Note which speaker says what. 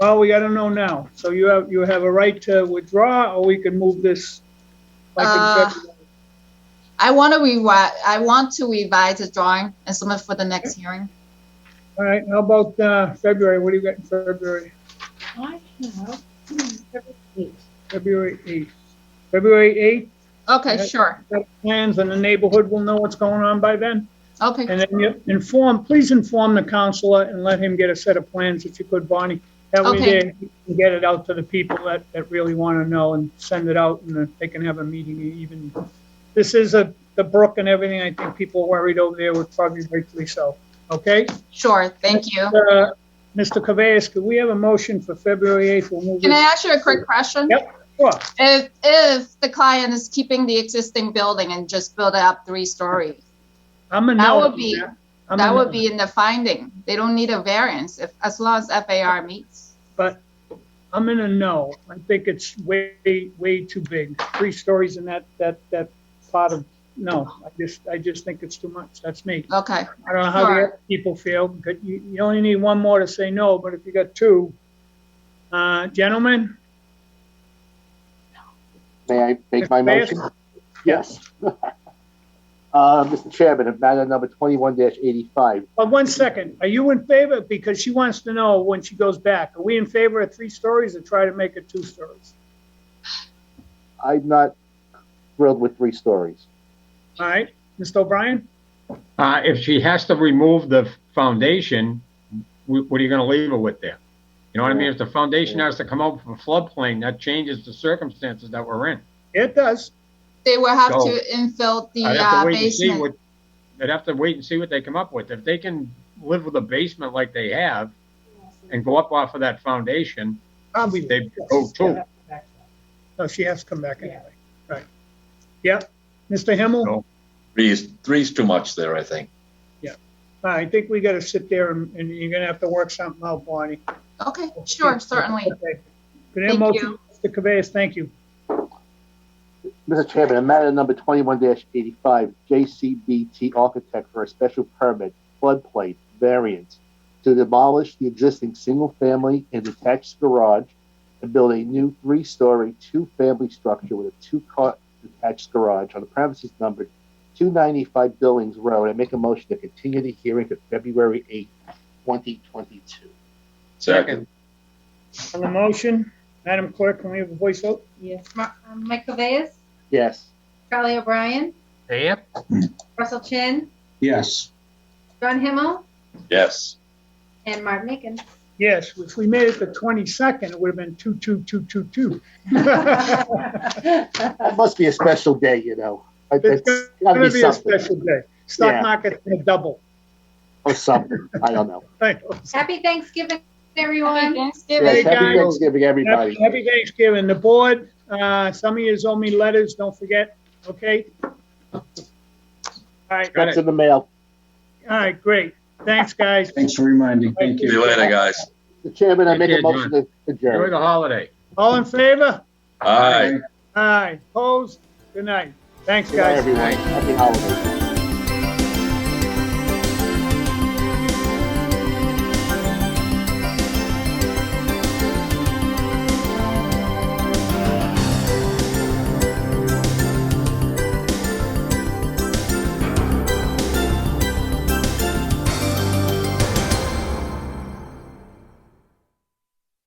Speaker 1: Well, we, I don't know now. So you have, you have a right to withdraw, or we can move this. like in
Speaker 2: Uh,
Speaker 1: February.
Speaker 2: I want to revise, I want to revise the drawing and submit for the next hearing.
Speaker 1: All right, how about, uh, February? What do you got in February?
Speaker 3: I have. hmm,
Speaker 1: February eighth. February eighth,
Speaker 2: Okay,
Speaker 1: Yeah.
Speaker 2: sure.
Speaker 1: got plans and the neighborhood will know what's going on by then.
Speaker 2: Okay,
Speaker 1: And then you inform, please inform the counselor and let him get a set of plans if you could, Bonnie. That way
Speaker 2: Okay.
Speaker 1: there, you can get it out to the people that, that really want to know and send it out and they can have a meeting even. This is a, the brook and everything. I think people are worried over there would probably rightfully so. Okay?
Speaker 2: sure. Thank you.
Speaker 1: Uh, Mr. Cabeas, could we have a motion for February 8th? We'll move
Speaker 2: Can I
Speaker 1: this.
Speaker 2: ask you a quick question?
Speaker 1: Yep. Sure.
Speaker 2: If, if the client is keeping the existing building and just build it up three stories,
Speaker 1: I'm a
Speaker 2: That
Speaker 1: no
Speaker 2: would
Speaker 1: on
Speaker 2: be-
Speaker 1: I'm a
Speaker 2: that
Speaker 1: no.
Speaker 2: would be in the finding. They don't need a variance if, as long as FAR meets.
Speaker 1: but I'm in a no. I think it's way, way too big. Three stories in that, that, that part of, no, I just, I just think it's too much. That's me.
Speaker 2: Okay,
Speaker 1: I don't know how the other people feel, but you, you only need one more to say no, but if you got two, uh, gentlemen?
Speaker 4: May I make my
Speaker 1: Mr. Bass?
Speaker 4: motion? Yes. Uh, Mr. Chairman, of matter number twenty-one eighty-five,
Speaker 1: But uh, one second, are you in favor? Because she wants to know when she goes back. Are we in favor of three stories or try to make it two stories?
Speaker 4: I'm not thrilled with three stories.
Speaker 1: All right, Mr. O'Brien?
Speaker 5: Uh, if she has to remove the foundation, wh- what are you gonna leave her with there? You know what I mean? If the foundation has to come out from floodplain, that changes the circumstances that we're in.
Speaker 1: It does.
Speaker 2: they will have
Speaker 5: Go.
Speaker 2: to infill the
Speaker 5: I'd
Speaker 2: uh,
Speaker 5: have to wait and see
Speaker 2: basement.
Speaker 5: what, I'd have to wait and see what they come up with. If they can live with a basement like they have and go up off of that foundation,
Speaker 1: Probably.
Speaker 5: they
Speaker 4: oh,
Speaker 5: go two.
Speaker 1: No, she has to come back anyway. Right. Yep. Mr. Himmel?
Speaker 5: No.
Speaker 6: Three's, three's too much there, I think.
Speaker 1: I think we gotta sit there and, and you're gonna have to work something out, Bonnie.
Speaker 2: Okay, sure, certainly.
Speaker 1: Okay. Good
Speaker 2: Thank
Speaker 1: motion, Mr. Cabeas, thank you.
Speaker 4: Mr. Chairman, of matter number twenty-one eighty-five, JCBT Architect for a special permit, floodplain variance to demolish the existing single-family and detached garage and build a new three-story, two-family structure with a two-car detached garage on the premises numbered two ninety-five Billings Road. I make a motion to continue the hearing to February eighth, twenty twenty-two.
Speaker 6: Second,
Speaker 1: On the motion, Madam Clerk, can we have a voice vote?
Speaker 3: Yes. Ma- um, Mike Cabeas,
Speaker 4: Yes.
Speaker 3: Charlie O'Brien,
Speaker 5: Yep.
Speaker 3: Russell Chin,
Speaker 7: Yes.
Speaker 3: John Himmel,
Speaker 6: yes.
Speaker 3: and Martin Akins.
Speaker 1: Yes, if we made it the twenty-second, it would have been two, two, two, two, two.
Speaker 4: That must be a special day, you know. That-
Speaker 1: It's
Speaker 4: That's
Speaker 1: It's
Speaker 4: gotta
Speaker 1: gonna
Speaker 4: be
Speaker 1: be a
Speaker 4: something
Speaker 1: special day. Stock
Speaker 4: Yeah.
Speaker 1: market's gonna double.
Speaker 4: or something. I don't know.
Speaker 1: Thank
Speaker 3: Happy Thanksgiving,
Speaker 2: Happy
Speaker 3: everyone.
Speaker 2: Thanksgiving.
Speaker 4: Yes,
Speaker 1: Hey, guys.
Speaker 4: happy Thanksgiving,
Speaker 1: Happy
Speaker 4: everybody.
Speaker 1: happy Thanksgiving. The board, uh, some of yous owe me letters, don't forget, okay? All right,
Speaker 5: Got
Speaker 4: That's
Speaker 5: it.
Speaker 4: in the mail.
Speaker 1: all right, great. Thanks, guys.
Speaker 7: Thanks for reminding. Thank
Speaker 6: See
Speaker 7: you.
Speaker 6: you later, guys.
Speaker 4: The chairman, I
Speaker 5: Good
Speaker 4: make
Speaker 5: day,
Speaker 4: a motion to
Speaker 5: Enjoy
Speaker 4: adjourn.
Speaker 5: the holiday.
Speaker 1: All in favor?
Speaker 6: All right.
Speaker 1: Aye. Opposed? Good night. Thanks,
Speaker 4: Good night,
Speaker 1: guys.
Speaker 4: everyone. Happy holidays.